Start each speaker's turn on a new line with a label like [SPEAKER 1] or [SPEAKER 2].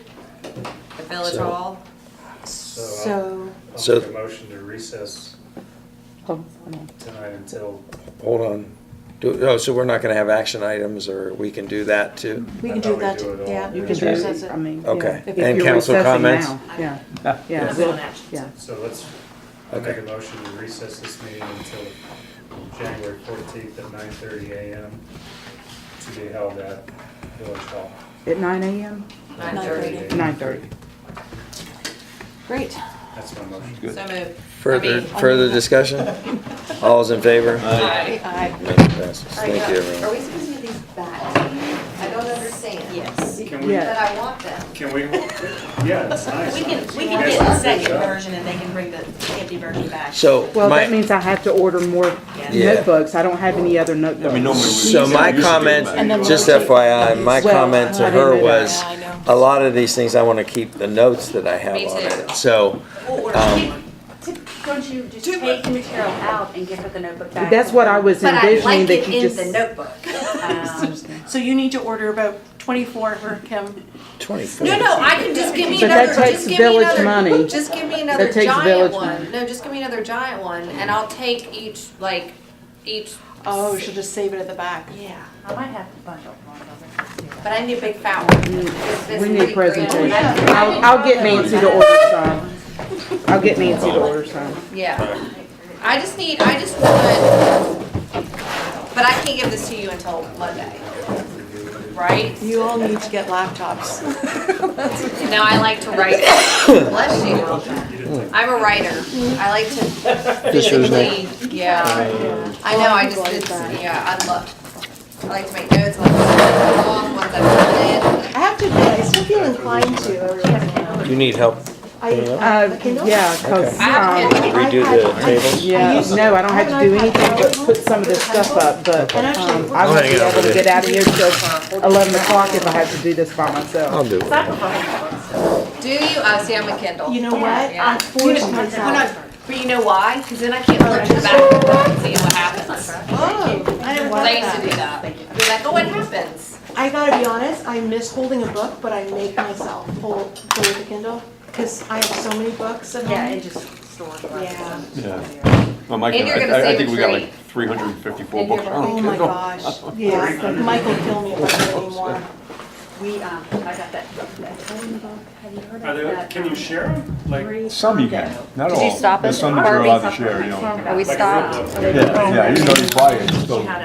[SPEAKER 1] Village
[SPEAKER 2] So-
[SPEAKER 1] Hall.
[SPEAKER 3] So,
[SPEAKER 2] So-
[SPEAKER 4] I'll make a motion to recess
[SPEAKER 3] hold on.
[SPEAKER 4] tonight until,
[SPEAKER 2] Hold on. Do, oh, so we're not gonna have action items, or we can do that too?
[SPEAKER 3] we
[SPEAKER 4] I
[SPEAKER 3] can
[SPEAKER 4] thought
[SPEAKER 3] do
[SPEAKER 4] we
[SPEAKER 3] that,
[SPEAKER 4] do it all.
[SPEAKER 3] yeah.
[SPEAKER 4] You
[SPEAKER 3] we
[SPEAKER 4] can
[SPEAKER 3] can
[SPEAKER 1] do-
[SPEAKER 3] recess it.
[SPEAKER 1] I
[SPEAKER 5] mean,
[SPEAKER 2] Okay.
[SPEAKER 3] If
[SPEAKER 2] And
[SPEAKER 3] you're
[SPEAKER 2] council
[SPEAKER 3] recessing
[SPEAKER 2] comments?
[SPEAKER 3] now, Yeah,
[SPEAKER 1] That's
[SPEAKER 5] yeah.
[SPEAKER 3] we'll-
[SPEAKER 1] on action.
[SPEAKER 5] yeah.
[SPEAKER 4] so let's, I'll make a motion to recess this meeting until January fourteenth at nine thirty AM to be held at Village Hall.
[SPEAKER 5] At nine AM?
[SPEAKER 1] 9:30.
[SPEAKER 5] Nine thirty.
[SPEAKER 3] Great.
[SPEAKER 4] That's my motion.
[SPEAKER 1] So moved. I
[SPEAKER 2] Further,
[SPEAKER 1] mean-
[SPEAKER 2] further discussion? All's in favor?
[SPEAKER 1] Aye.
[SPEAKER 3] Aye.
[SPEAKER 2] Motion passes. Thank you,
[SPEAKER 6] Are
[SPEAKER 2] everyone.
[SPEAKER 6] we supposed to give these back to you? I don't understand.
[SPEAKER 1] Yes.
[SPEAKER 4] Can we,
[SPEAKER 6] But I want them.
[SPEAKER 4] can we, yeah, it's nice.
[SPEAKER 1] We can, we
[SPEAKER 4] You
[SPEAKER 1] can get the
[SPEAKER 4] guys did a good
[SPEAKER 1] second
[SPEAKER 4] job.
[SPEAKER 1] version and they can bring the empty version back.
[SPEAKER 2] So
[SPEAKER 5] Well,
[SPEAKER 2] my-
[SPEAKER 5] that means I have to order more
[SPEAKER 2] Yeah.
[SPEAKER 5] notebooks. I don't have any other notebooks.
[SPEAKER 2] So my comment,
[SPEAKER 3] then
[SPEAKER 2] just
[SPEAKER 3] we'll take-
[SPEAKER 2] FYI, my
[SPEAKER 5] Well,
[SPEAKER 2] comment
[SPEAKER 5] I
[SPEAKER 2] to
[SPEAKER 5] didn't
[SPEAKER 2] her
[SPEAKER 5] know that.
[SPEAKER 2] was,
[SPEAKER 1] Yeah, I know.
[SPEAKER 2] a lot of these things, I want to keep the notes that I have
[SPEAKER 1] Me
[SPEAKER 2] on
[SPEAKER 1] too.
[SPEAKER 2] it. So,
[SPEAKER 1] We'll order
[SPEAKER 2] um,
[SPEAKER 7] Don't you just take the material out and give her the notebook back?
[SPEAKER 5] That's what I was
[SPEAKER 6] But I
[SPEAKER 5] envisioning
[SPEAKER 6] like
[SPEAKER 5] that
[SPEAKER 6] it
[SPEAKER 5] you
[SPEAKER 6] in
[SPEAKER 5] just.
[SPEAKER 6] the notebook.
[SPEAKER 7] Um,
[SPEAKER 8] So you need to order about twenty-four for Kim.
[SPEAKER 2] 24.
[SPEAKER 1] No, no, I can, just give me
[SPEAKER 5] But that
[SPEAKER 1] another,
[SPEAKER 5] takes
[SPEAKER 1] just give me
[SPEAKER 5] village
[SPEAKER 1] another,
[SPEAKER 5] money.
[SPEAKER 1] just give me another
[SPEAKER 5] That takes
[SPEAKER 1] giant
[SPEAKER 5] village
[SPEAKER 1] one.
[SPEAKER 5] money.
[SPEAKER 1] No, just give me another giant one and I'll take each, like, each,
[SPEAKER 8] Oh, she'll just save it at the back.
[SPEAKER 1] yeah.
[SPEAKER 7] I might have to bundle one of them.
[SPEAKER 1] But I need a big fat one. This- this
[SPEAKER 5] Mm. We
[SPEAKER 1] is pretty
[SPEAKER 5] need
[SPEAKER 1] grand.
[SPEAKER 5] presentation. I'll, I'll get Nancy to order some. I'll get Nancy to order some.
[SPEAKER 1] Yeah. I just need, I just want, but I can't give this to you until Monday, right?
[SPEAKER 8] You all need to get laptops.
[SPEAKER 1] Now, I like to write, bless you.
[SPEAKER 5] Mm.
[SPEAKER 1] I'm a writer. I like to
[SPEAKER 2] This was
[SPEAKER 1] physically, yeah. I know, I just, it's, yeah, I love, I like to make notes, I like to put them off once I've done it.
[SPEAKER 7] I have to admit, I still feel inclined to over there.
[SPEAKER 2] You need help?
[SPEAKER 7] I,
[SPEAKER 5] Uh, yeah, cause,
[SPEAKER 2] Okay.
[SPEAKER 1] I have
[SPEAKER 5] um,
[SPEAKER 1] kids.
[SPEAKER 2] Redo the tables?
[SPEAKER 5] yeah, no, I don't have to do anything but put some of this stuff up, but,
[SPEAKER 7] And actually-
[SPEAKER 5] um, I won't be
[SPEAKER 2] I'll hang out
[SPEAKER 5] able to
[SPEAKER 2] with
[SPEAKER 5] get out of here till eleven o'clock if I have to do this by
[SPEAKER 2] I'll
[SPEAKER 5] myself.
[SPEAKER 2] do it.
[SPEAKER 1] Do you? Oh, see, I'm a Kindle.
[SPEAKER 7] You know what? I forced myself.
[SPEAKER 1] But you know why? Because then I can't look in the back of the book and see what happens.
[SPEAKER 7] Oh, I didn't want
[SPEAKER 1] I used to do
[SPEAKER 7] that.
[SPEAKER 1] that. Be like, oh, what happens?
[SPEAKER 7] I gotta be honest, I miss holding a book, but I make myself hold, hold the Kindle, cause I have so many books at home.
[SPEAKER 8] Yeah, it just stores.
[SPEAKER 7] Yeah.
[SPEAKER 9] Well, Mike,
[SPEAKER 1] And you're gonna
[SPEAKER 9] I- I, I
[SPEAKER 1] save
[SPEAKER 9] think
[SPEAKER 1] a
[SPEAKER 9] we got
[SPEAKER 1] tree.
[SPEAKER 9] like three hundred and fifty-four
[SPEAKER 1] And you're
[SPEAKER 9] books.
[SPEAKER 1] gonna-
[SPEAKER 9] I don't
[SPEAKER 7] Oh my
[SPEAKER 9] care.
[SPEAKER 7] gosh, yeah, Mike will kill me if I do it anymore.
[SPEAKER 10] We, um, I got that, that Tony book, have you heard
[SPEAKER 4] Are
[SPEAKER 10] of
[SPEAKER 4] they,
[SPEAKER 10] that?
[SPEAKER 4] can you share them? Like, like
[SPEAKER 9] Some you can, not all.
[SPEAKER 10] Did you stop
[SPEAKER 9] There's
[SPEAKER 10] it?
[SPEAKER 9] some that
[SPEAKER 10] Are
[SPEAKER 9] you're
[SPEAKER 10] we-
[SPEAKER 9] allowed to share, you know.
[SPEAKER 10] Are we
[SPEAKER 4] a
[SPEAKER 10] stopped?
[SPEAKER 4] flip book?
[SPEAKER 9] Yeah, yeah, even though you buy it, it's still.
[SPEAKER 10] She had